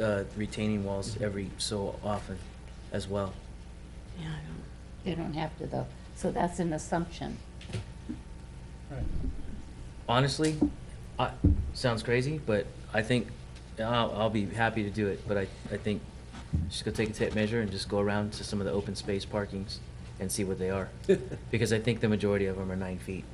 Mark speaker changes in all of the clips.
Speaker 1: uh, retaining walls every so often as well.
Speaker 2: Yeah, I don't-
Speaker 3: They don't have to though, so that's an assumption.
Speaker 1: Honestly, I, sounds crazy, but I think, I'll, I'll be happy to do it, but I, I think just go take a tape measure and just go around to some of the open space parkings and see what they are. Because I think the majority of them are nine feet.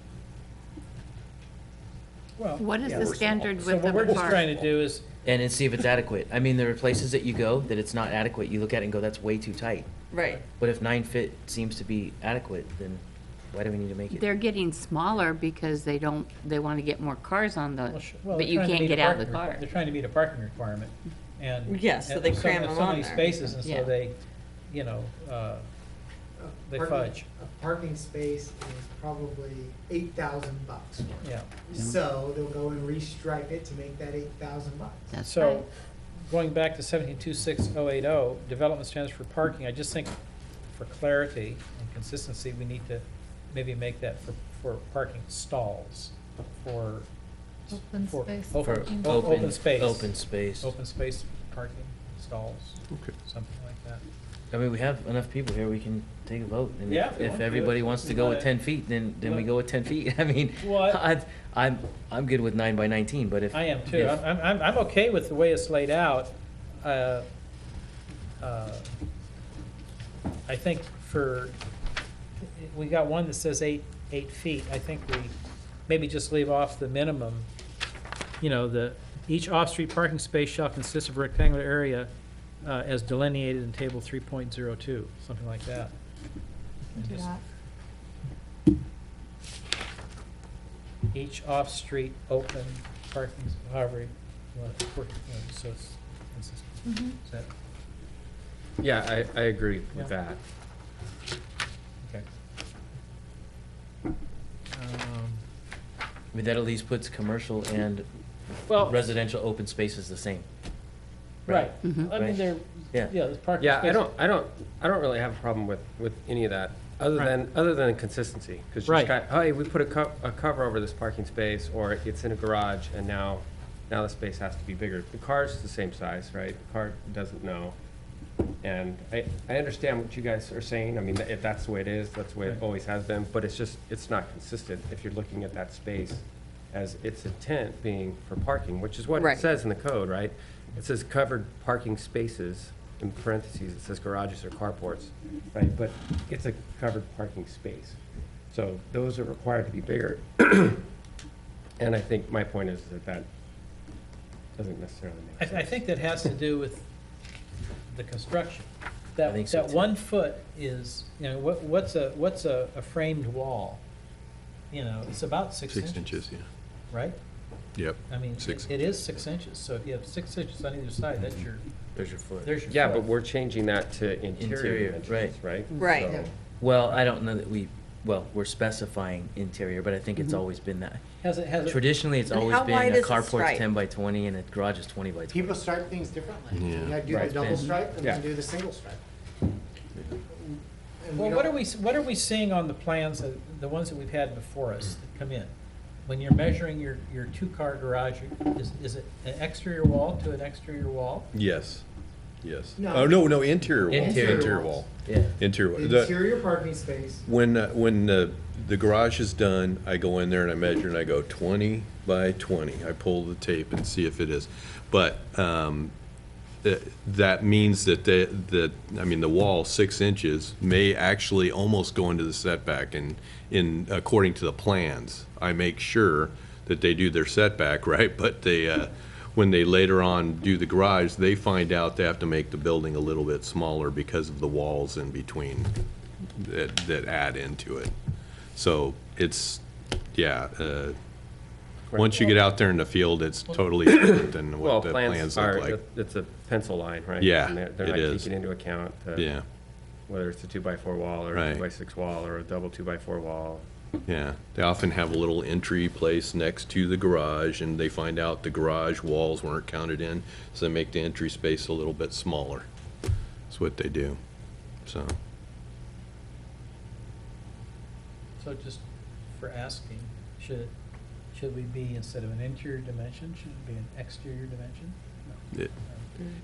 Speaker 4: Well,
Speaker 2: What is
Speaker 4: yeah,
Speaker 2: the
Speaker 4: we're-
Speaker 2: standard
Speaker 4: So
Speaker 2: width
Speaker 4: what
Speaker 2: of
Speaker 4: we're
Speaker 2: a
Speaker 4: just trying
Speaker 2: park?
Speaker 4: to do is,
Speaker 1: And then see if it's adequate. I mean, there are places that you go that it's not adequate. You look at it and go, that's way too tight.
Speaker 2: Right.
Speaker 1: But if nine fit seems to be adequate, then why do we need to make it?
Speaker 3: They're getting smaller because they don't, they want to get more cars on
Speaker 4: well,
Speaker 3: the,
Speaker 4: sh- well,
Speaker 3: but you
Speaker 4: they're trying to
Speaker 3: can't
Speaker 4: meet a
Speaker 3: get out of the
Speaker 4: parking requir-
Speaker 3: car.
Speaker 4: They're trying to meet a parking requirement, and.
Speaker 2: Yes, so
Speaker 4: and
Speaker 2: they
Speaker 4: there's
Speaker 2: cram
Speaker 4: many-
Speaker 2: them
Speaker 4: So
Speaker 2: on
Speaker 4: many
Speaker 2: there.
Speaker 4: spaces, and
Speaker 3: Yeah.
Speaker 4: so they, you know, uh, they
Speaker 5: Parking-
Speaker 4: fudge,
Speaker 5: A parking space is probably eight thousand bucks.
Speaker 4: yeah.
Speaker 5: So they'll go and restripe it to make that eight thousand bucks.
Speaker 3: That's right.
Speaker 4: So, going back to seventeen two six oh eight oh, development standards for parking, I just think for clarity and consistency, we need to maybe make that for, for parking stalls, for.
Speaker 6: Open
Speaker 4: for-
Speaker 6: space.
Speaker 4: o-
Speaker 1: For
Speaker 4: o- Open space.
Speaker 1: Open space.
Speaker 4: Open space parking stalls, something like that.
Speaker 1: I mean, we have enough people here, we can take a vote. and if-
Speaker 4: Yeah, if we want
Speaker 1: If
Speaker 4: to.
Speaker 1: everybody wants to go with
Speaker 4: Yeah.
Speaker 1: ten feet, then, then we
Speaker 4: Yeah.
Speaker 1: go with ten feet. I mean,
Speaker 4: Well, I-
Speaker 1: I'd- I'm, I'm good with nine by nineteen, but if.
Speaker 4: I am too.
Speaker 1: if-
Speaker 4: I'm, I'm- I'm, I'm okay with the way it's laid out. Uh, uh, I think for, we got one that says eight, eight feet. I think we maybe just leave off the minimum. You know, the, each off-street parking space shall consist of a rectangular area uh, as delineated in table three point zero two, something like that. And
Speaker 6: Do
Speaker 4: just
Speaker 6: that.
Speaker 4: Each off-street open parking, however, you want to work, you know, so it's consistent.
Speaker 6: Mhm.
Speaker 4: Is that,
Speaker 7: Yeah, I, I agree
Speaker 4: Yeah.
Speaker 7: with that.
Speaker 4: okay. Um,
Speaker 1: I mean, that at least puts commercial and
Speaker 4: Well,
Speaker 1: residential open spaces the same.
Speaker 4: right,
Speaker 3: Mhm.
Speaker 4: I mean, there, yeah,
Speaker 1: Yeah.
Speaker 4: there's parking
Speaker 7: Yeah, I
Speaker 4: spaces.
Speaker 7: don't, I don't, I don't really have a problem with, with any of that, other
Speaker 4: Right.
Speaker 7: than, other than consistency. Because you
Speaker 4: Right.
Speaker 7: just got, hey, we put a co- a cover over this parking space, or it's in a garage, and now, now the space has to be bigger. The car's the same size, right? The car doesn't know. And I, I understand what you guys are saying, I mean, if that's the way it is, that's the way it
Speaker 4: Right.
Speaker 7: always has been, but it's just, it's not consistent if you're looking at that space as its intent being for parking, which is what
Speaker 2: Right.
Speaker 7: it says in the code, right? It says covered parking spaces, in parentheses, it says garages or carports, right? But it's a covered parking space, so those are required to be bigger. And I think my point is that that doesn't necessarily
Speaker 4: I,
Speaker 7: make
Speaker 4: I
Speaker 7: sense.
Speaker 4: think that has to do with the construction.
Speaker 1: I
Speaker 4: That,
Speaker 1: think so,
Speaker 4: that
Speaker 1: too.
Speaker 4: one foot is, you know, what, what's a, what's a, a framed wall? You know, it's about six
Speaker 8: Six
Speaker 4: inches,
Speaker 8: inches, yeah.
Speaker 4: right?
Speaker 8: Yep.
Speaker 4: I mean,
Speaker 8: Six.
Speaker 4: it it is six inches, so if you have six inches on either side, that's your,
Speaker 1: There's your foot.
Speaker 4: there's your.
Speaker 7: Yeah,
Speaker 4: foot.
Speaker 7: but we're changing that to
Speaker 1: Interior,
Speaker 7: interior dimensions, right?
Speaker 2: Right.
Speaker 7: So-
Speaker 1: Well, I don't know that we, well, we're specifying interior, but I think it's
Speaker 4: Mm-hmm.
Speaker 3: Mhm.
Speaker 1: always been that.
Speaker 4: Has it, has it?
Speaker 1: Traditionally, it's
Speaker 2: And
Speaker 1: always
Speaker 2: how wide
Speaker 1: been a
Speaker 2: is the stripe?
Speaker 1: carport's ten by twenty and a garage is twenty by twenty.
Speaker 5: People stripe things differently.
Speaker 8: Yeah.
Speaker 5: You gotta do
Speaker 7: Right.
Speaker 5: the double
Speaker 1: And-
Speaker 5: stripe and then
Speaker 7: Yeah.
Speaker 5: do the single stripe. And
Speaker 4: Well,
Speaker 5: we
Speaker 4: what are
Speaker 5: don't-
Speaker 4: we, what are we seeing on the plans, that- the ones that we've had before us that come in? When you're measuring your, your two-car garage, is, is it an exterior wall to an exterior wall?
Speaker 8: Yes, yes.
Speaker 5: No.
Speaker 8: Oh, no, no, interior wall.
Speaker 1: Interior
Speaker 8: wall.
Speaker 1: Yeah.
Speaker 8: Interior. wall.
Speaker 5: The
Speaker 8: The-
Speaker 5: Interior parking space,
Speaker 8: When, uh, when the, the garage is done, I go in there and I measure and I go twenty by twenty. I pull the tape and see if it is. But, um, th- that means that the, that, I mean, the wall, six inches, may actually almost go into the setback and, in, according to the plans. I make sure that they do their setback, right? But they, uh, when they later on do the garage, they find out they have to make the building a little bit smaller because of the walls in between that, that add into it. So it's, yeah, uh, once you get out there in the field, it's totally different than
Speaker 7: Well,
Speaker 8: what the
Speaker 7: plans
Speaker 8: plans look
Speaker 7: are,
Speaker 8: like.
Speaker 7: it's a pencil line, right?
Speaker 8: Yeah,
Speaker 7: And they're- They're
Speaker 8: it
Speaker 7: not
Speaker 8: is.
Speaker 7: taking into account the-
Speaker 8: Yeah,
Speaker 7: whether it's a two-by-four wall or a
Speaker 8: Right.
Speaker 7: two-by-six wall or a double two-by-four wall.
Speaker 8: yeah. They often have a little entry place next to the garage, and they find out the garage walls weren't counted in, so they make the entry space a little bit smaller. That's what they do, so.
Speaker 4: So just for asking, should, should we be, instead of an interior dimension, should it be an exterior dimension?
Speaker 8: it-